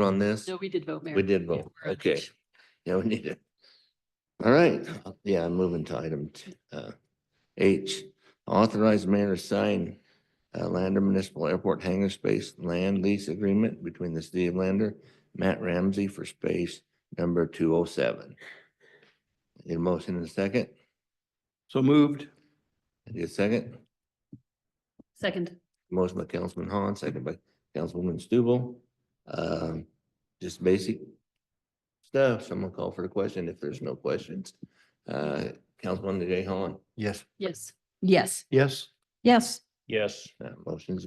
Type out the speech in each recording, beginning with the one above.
on this? No, we did vote, Mayor. We did Yeah, vote, we're on okay. it. Yeah, we need it. All right, yeah, I'm moving to item t- uh, H, authorize mayor to sign uh, Lander Municipal Airport hangar space land lease agreement between the city of Lander, Matt Ramsey for space number two oh seven. Need a motion in a second? So moved. Need a second? Second, Motion by Councilman Hahn, second by Councilwoman Stubble. Um, just basic stuff. Someone call for the question if there's no questions. Uh, Councilman Jay Hahn, Yes. yes. Yes. Yes. Yes. Yes. uh, motions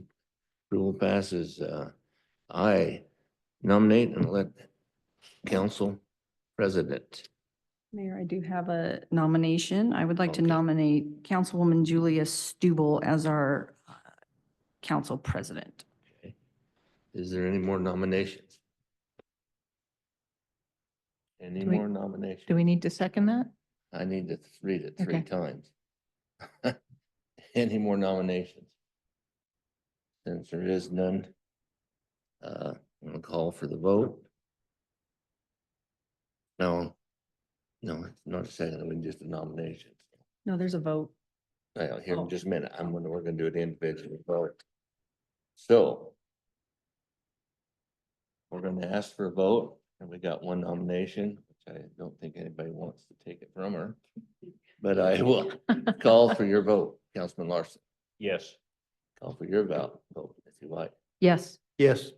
approval passes. Uh, I nominate and let council president. Mayor, I do have a nomination. I would like to Okay. nominate Councilwoman Julia Stubble as our uh, council president. Is there any more nominations? Any Do we- more nominations? Do we need to second that? I need to read it three Okay. times. Any more nominations? Since there is none, uh, I'm gonna call for the vote. No, no, it's not a second, we just a nomination. No, there's a vote. I don't hear in just a minute, I'm gonna, we're gonna do it individually, vote. So we're gonna ask for a vote, and we got one nomination, which I don't think anybody wants to take it from her. But I will call for your vote, Councilman Larson. Yes. Call for your vote, vote if you like. Yes. Yes.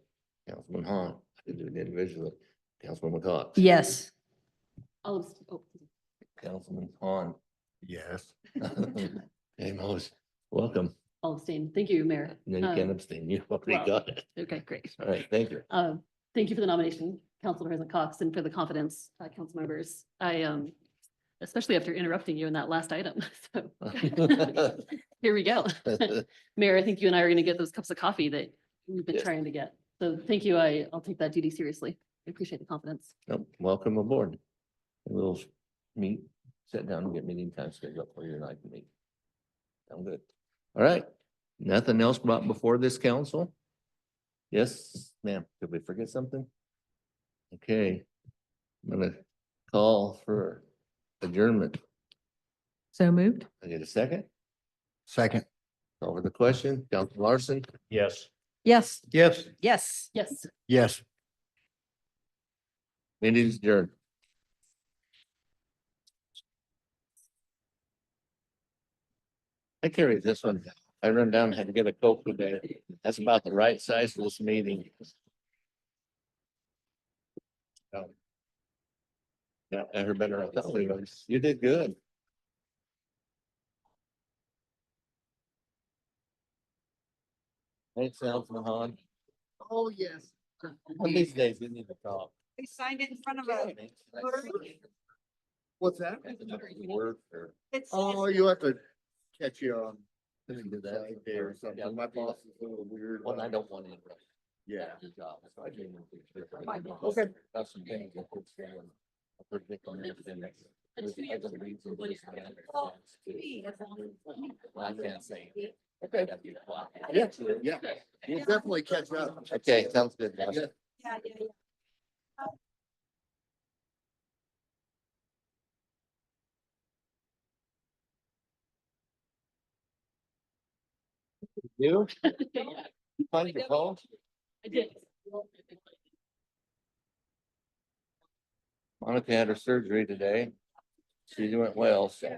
Councilman Hahn, I can do it individually. Councilman McCox. Yes. All of, oh, Councilman Hahn. Yes. Amos, welcome. all of same. Thank you, Mayor. No, you Um, can't abstain. You already well- got it. Okay, great. All right, thank you. Uh, Thank you for the nomination, Council President Cox, and for the confidence, uh, council members. I, um, especially after interrupting you in that last item, so. Here we go. Mayor, I think you and I are going to get those cups of coffee that we've been Yes. trying to get. So thank you. I, I'll take that duty seriously. I appreciate the confidence. Nope, Welcome aboard. And We'll meet, sit down and get meeting time scheduled for you and I can meet. Sound good. All right, nothing else brought before this council? Yes, ma'am, did we forget something? Okay, I'm gonna call for adjournment. So moved? I get a second? Second. Over the question, Council Larson? Yes. Yes. Yes. Yes. Yes. Yes. Meeting is adjourned. I carried this one. I run down, and had to get a Coke today. That's about the right size for this meeting. Oh. Yeah, I heard better. I thought we was- You did good. Thanks, Al Mahan. Oh, yes. One of these days, we need to talk. They signed it in front of us. What's that? Word for. It's, Oh, it's- you have to catch you on. Let me do that. Friday Or Yeah. something. My boss is a little weird. uh, One I don't want to interrupt. Yeah. your job, so I didn't want to- Okay. That's some things that we're saying. I predict on everything that's- It's there's two years. other reasons Well, it's yeah. not- Well, Well, I can't say. Okay. That'd be why. Yeah, yeah. We'll definitely catch up. Okay, sounds good. boss. Yeah. yeah, yeah, yeah. You Yeah, find your phone? I did. Monica had her surgery today. She went well, so.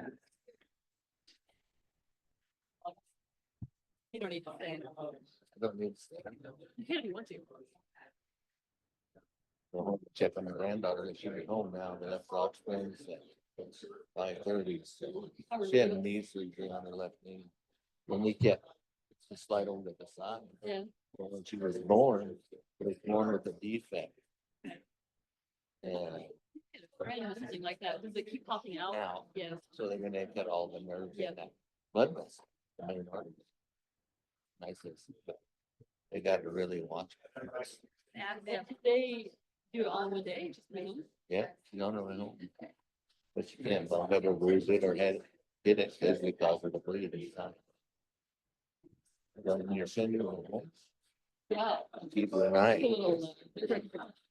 You don't need to say. it. I don't need to You can if you want to. go home and check on my granddaughter that she'll be home now, but that's all explains that. It's five thirty, so she had a knee surgery on her left knee. When we kept, it's just slide over to the side. Yeah. Well, When she was born, she was born with a defect. And Right, or something like that. Does it keep popping out? now, Yes. so they're gonna cut all the nerves Yeah. in that blood vessel. the main artery. Nice, it's- but they gotta really watch. her. Yeah, They do it all in one day, just maybe. Yeah, she's on her own. But you can't bump it or bruise it or head, hit it, cause we cause her to bleed inside. When you're sending her home, Yeah. people and I, It's a little, uh, different.